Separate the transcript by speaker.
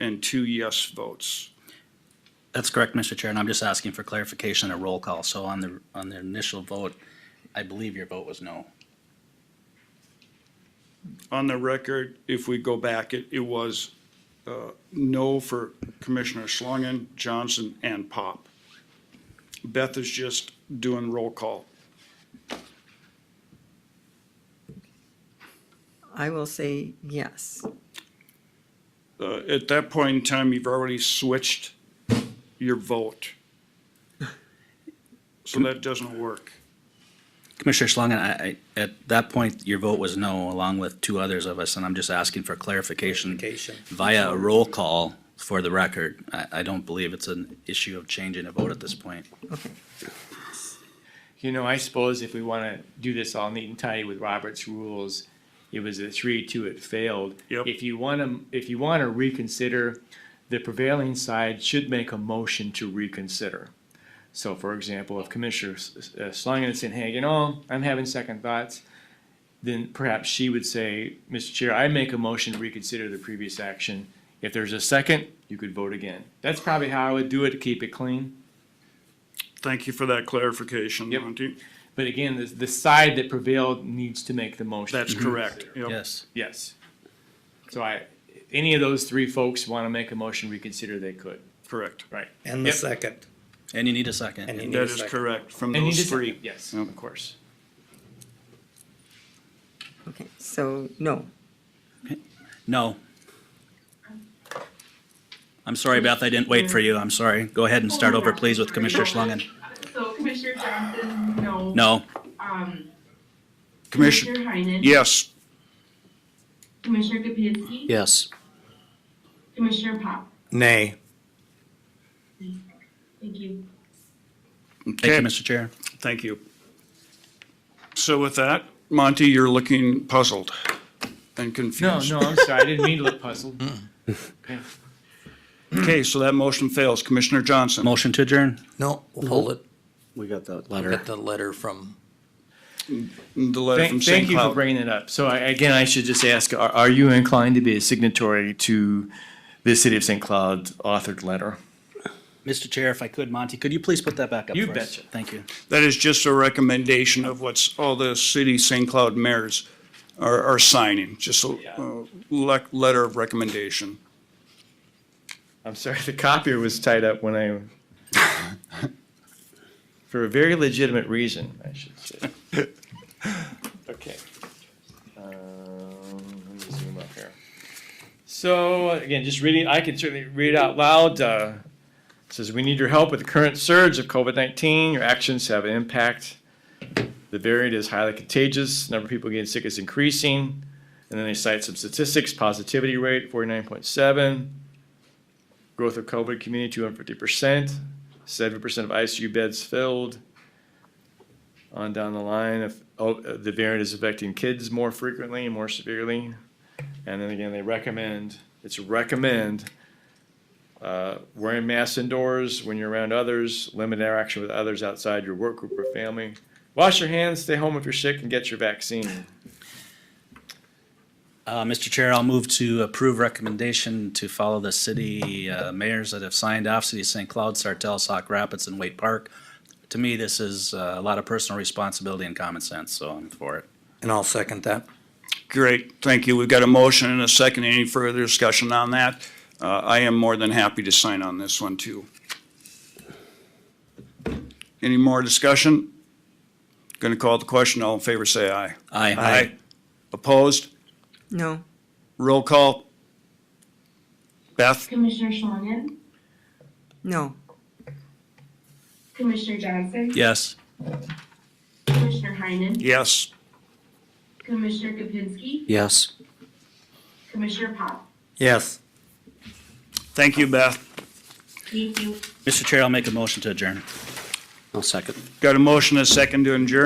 Speaker 1: and two yes votes.
Speaker 2: That's correct, Mr. Chair, and I'm just asking for clarification and a roll call. So on the, on the initial vote, I believe your vote was no.
Speaker 1: On the record, if we go back, it, it was, uh, no for Commissioner Schlangen, Johnson, and Pop. Beth is just doing roll call.
Speaker 3: I will say yes.
Speaker 1: Uh, at that point in time, you've already switched your vote. So that doesn't work.
Speaker 2: Commissioner Schlangen, I, I, at that point, your vote was no, along with two others of us, and I'm just asking for clarification via a roll call for the record. I, I don't believe it's an issue of changing a vote at this point.
Speaker 4: You know, I suppose if we want to do this all neat and tidy with Robert's rules, it was a three-two, it failed.
Speaker 1: Yep.
Speaker 4: If you want to, if you want to reconsider, the prevailing side should make a motion to reconsider. So for example, if Commissioner S- uh, Schlangen is saying, hey, you know, I'm having second thoughts, then perhaps she would say, Mr. Chair, I make a motion to reconsider the previous action. If there's a second, you could vote again. That's probably how I would do it to keep it clean.
Speaker 1: Thank you for that clarification,
Speaker 4: Yep.
Speaker 1: Monty.
Speaker 4: But again, the, the side that prevailed needs to make the motion. Mm-hmm.
Speaker 1: That's correct. Yep.
Speaker 2: Yes.
Speaker 4: Mhm. Yes. So I, if any of those three folks want to make a motion reconsider, they could.
Speaker 1: Correct.
Speaker 4: Right.
Speaker 5: And the
Speaker 4: Yep.
Speaker 5: second.
Speaker 2: And you need a second.
Speaker 5: And you need
Speaker 1: That
Speaker 5: a
Speaker 1: is
Speaker 5: second.
Speaker 1: correct, from
Speaker 4: And you
Speaker 1: those
Speaker 4: just-
Speaker 1: three.
Speaker 4: Yes,
Speaker 1: Yep.
Speaker 4: of course.
Speaker 3: Okay, so no.
Speaker 2: No. I'm sorry, Beth, I didn't wait for you. I'm sorry. Go ahead and start over, please, with Commissioner Schlangen.
Speaker 6: So Commissioner Johnson, no.
Speaker 2: No.
Speaker 6: Um,
Speaker 1: Commissioner,
Speaker 6: Commissioner Heinen.
Speaker 1: yes.
Speaker 6: Commissioner Kapinski.
Speaker 2: Yes.
Speaker 6: Commissioner Pop.
Speaker 5: Nay.
Speaker 6: Thank you.
Speaker 2: Thank
Speaker 1: Okay.
Speaker 2: you, Mr. Chair.
Speaker 1: Thank you. So with that, Monty, you're looking puzzled and
Speaker 4: No,
Speaker 1: confused.
Speaker 4: no, I'm sorry. I didn't mean to look puzzled.
Speaker 1: Okay, so that motion fails. Commissioner Johnson,
Speaker 2: Motion to adjourn?
Speaker 5: No, we'll hold it.
Speaker 7: We got that
Speaker 5: Got
Speaker 7: letter.
Speaker 5: the letter from.
Speaker 1: the letter from
Speaker 4: Thank,
Speaker 1: St.
Speaker 4: thank you for
Speaker 1: Cloud.
Speaker 4: bringing it up. So I, again, I should just ask, are, are you inclined to be a signatory to the City of St. Cloud authored letter?
Speaker 2: Mr. Chair, if I could, Monty, could you please put that back up
Speaker 4: You
Speaker 2: for us?
Speaker 4: betcha.
Speaker 2: Thank you.
Speaker 1: That is just a recommendation of what's all the city St. Cloud mayors are, are signing, just a, uh, le- letter of recommendation.
Speaker 4: I'm sorry, the copier was tied up when I, for a very legitimate reason, I should say. Okay. Um, Let me zoom up here. So, again, just reading, I can certainly read out loud. uh, it Says, "We need your help with the current surge of COVID-19. Your actions have an impact. The variant is highly contagious. Number of people getting sick is increasing." And then they cite some statistics, positivity rate, forty-nine point seven, growth of COVID community, two hundred fifty percent, seventy percent of ICU beds filled. On down the line, if, oh, uh, the variant is affecting kids more frequently and more severely. And then again, they recommend, it's recommend, uh, wearing masks indoors when you're around others, limit interaction with others outside your work group or family. Wash your hands, stay home if you're sick, and get your vaccine.
Speaker 2: Uh, Mr. Chair, I'll move to approve recommendation to follow the city uh, mayors that have signed off, City of St. Cloud, Sartell, Sauk Rapids, and Wade Park. To me, this is uh, a lot of personal responsibility and common sense, so I'm for it.
Speaker 5: And I'll second that.
Speaker 1: Great, thank you. We've got a motion and a second. Any further discussion on that? Uh, I am more than happy to sign on this one too. Any more discussion? Going to call the question. All in favor, say aye.
Speaker 2: Aye.
Speaker 1: Opposed?
Speaker 3: No.
Speaker 1: Roll call. Beth?
Speaker 6: Commissioner Schlangen.
Speaker 3: No.
Speaker 6: Commissioner Johnson.
Speaker 2: Yes.
Speaker 6: Commissioner Heinen.
Speaker 1: Yes.
Speaker 6: Commissioner Kapinski.
Speaker 7: Yes.
Speaker 6: Commissioner Pop.
Speaker 5: Yes.
Speaker 1: Thank you, Beth.
Speaker 6: Thank you.
Speaker 2: Mr. Chair, I'll make a motion to adjourn.
Speaker 7: I'll second.
Speaker 1: Got a motion, and a second to adjourn.